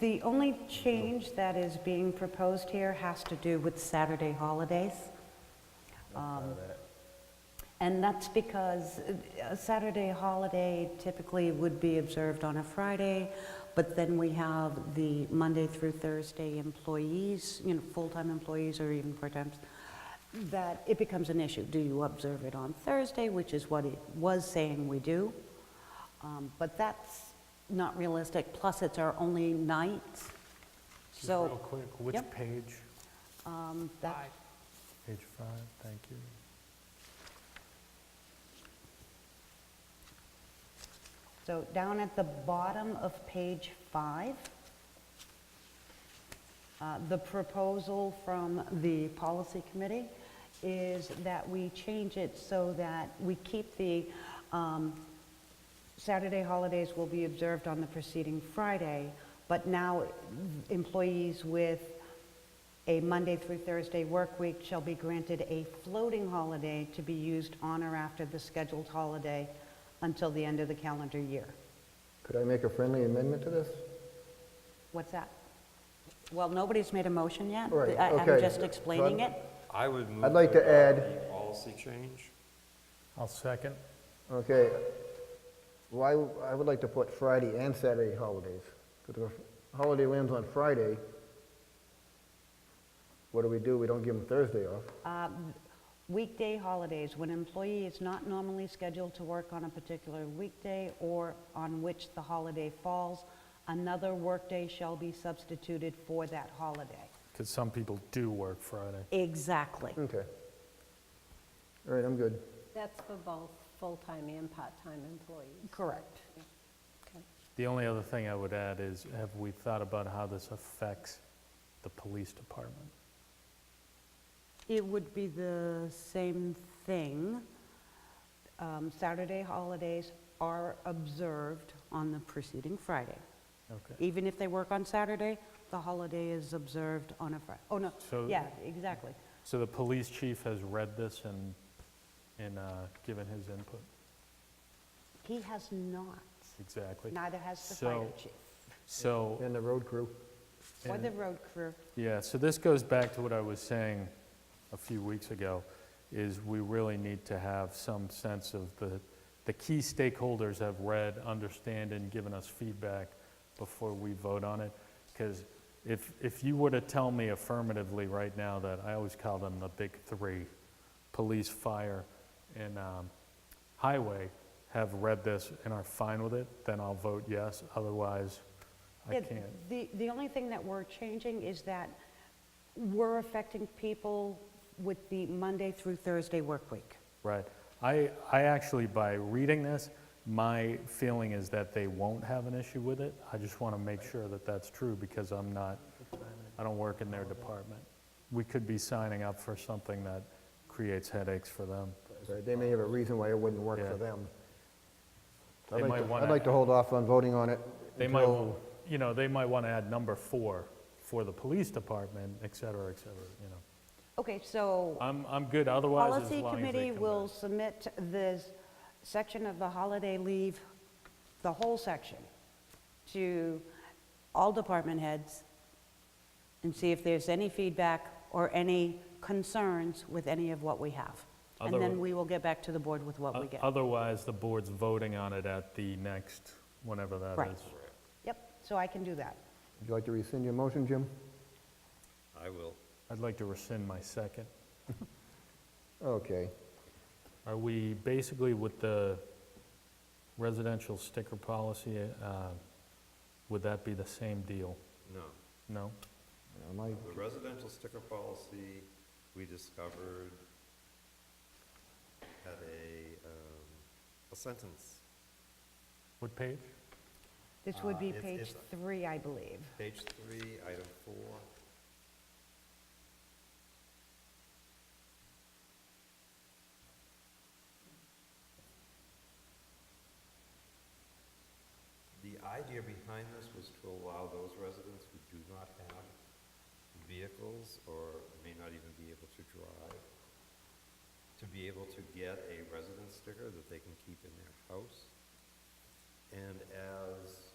The only change that is being proposed here has to do with Saturday holidays. Um, And that's because uh, a Saturday holiday typically would be observed on a Friday, but then we have the Monday through Thursday employees, you know, full-time employees or even part-times, that it becomes an issue. Do you observe it on Thursday, which is what it was saying we do? Um, But that's not realistic, plus it's our only night, Just so... Real quick, which Yep. page? um, that- Page five, thank you. So down at the bottom of page five, uh, the proposal from the policy committee is that we change it so that we keep the um, Saturday holidays will be observed on the preceding Friday, but now employees with a Monday through Thursday work week shall be granted a floating holiday to be used on or after the scheduled holiday until the end of the calendar year. Could I make a friendly amendment to this? What's that? Well, nobody's made a motion yet. Right, I- I'm okay. just So explaining it. I'm- I would move. I'd like to add- The policy change. I'll second. Okay, why, I would like to put Friday and Saturday holidays, because if a holiday lands on Friday, what do we do? We don't give them Thursday off. Weekday holidays, when employee is not normally scheduled to work on a particular weekday or on which the holiday falls, another workday shall be substituted for that holiday. Because some people do work Friday. Exactly. Okay. All right, I'm good. That's for both full-time and part-time employees. Correct. Okay. The only other thing I would add is, have we thought about how this affects the police department? It would be the same thing. Um, Saturday holidays are observed on the preceding Friday. Okay. Even if they work on Saturday, the holiday is observed on a Friday. Oh, no, So- yeah, exactly. So the police chief has read this and, and uh, given his input? He has not, Exactly. neither has the fire So- chief So. And the road crew. or and- the road crew. Yeah, so this goes back to what I was saying a few weeks ago, is we really need to have some sense of the, the key stakeholders have read, understand, and given us feedback before we vote on it. Because if, if you were to tell me affirmatively right now that, I always call them the big three, police, fire, and um, highway, have read this and are fine with it, then I'll vote yes, otherwise I Yeah, can't. The, the only thing that we're changing is that we're affecting people with the Monday through Thursday work week. Right. I, I actually, by reading this, my feeling is that they won't have an issue with it. I just want to make sure that that's true because I'm not, I don't work in their department. We could be signing up for something that creates headaches for them. All right, They may have a reason why it wouldn't work Yeah. for them. They I'd like might to- wanna- I'd like to hold off on voting on it. They might, until- you know, they might want to add number four for the police department, et cetera, et cetera, you know. Okay, so I'm, I'm good otherwise as policy long as they committee come will back. submit this section of the holiday leave, the whole section, to all department heads and see if there's any feedback or any concerns with any of what we have. And Otherwise- then we will get back to the board with what we get. Otherwise, the board's voting on it at the next, whenever that is. Right. Yep, so I can do that. Would you like to rescind your motion, Jim? I will. I'd like to rescind my second. Okay. Are we basically with the residential sticker policy, uh, would that be the same deal? No, No? Now, my- the residential sticker policy, we discovered had a, um, a sentence, What page? This would be Uh, it's- page it's- three, I believe. page three, item four. The idea behind this was to allow those residents who do not have vehicles or may not even be able to drive to be able to get a residence sticker that they can keep in their house. And as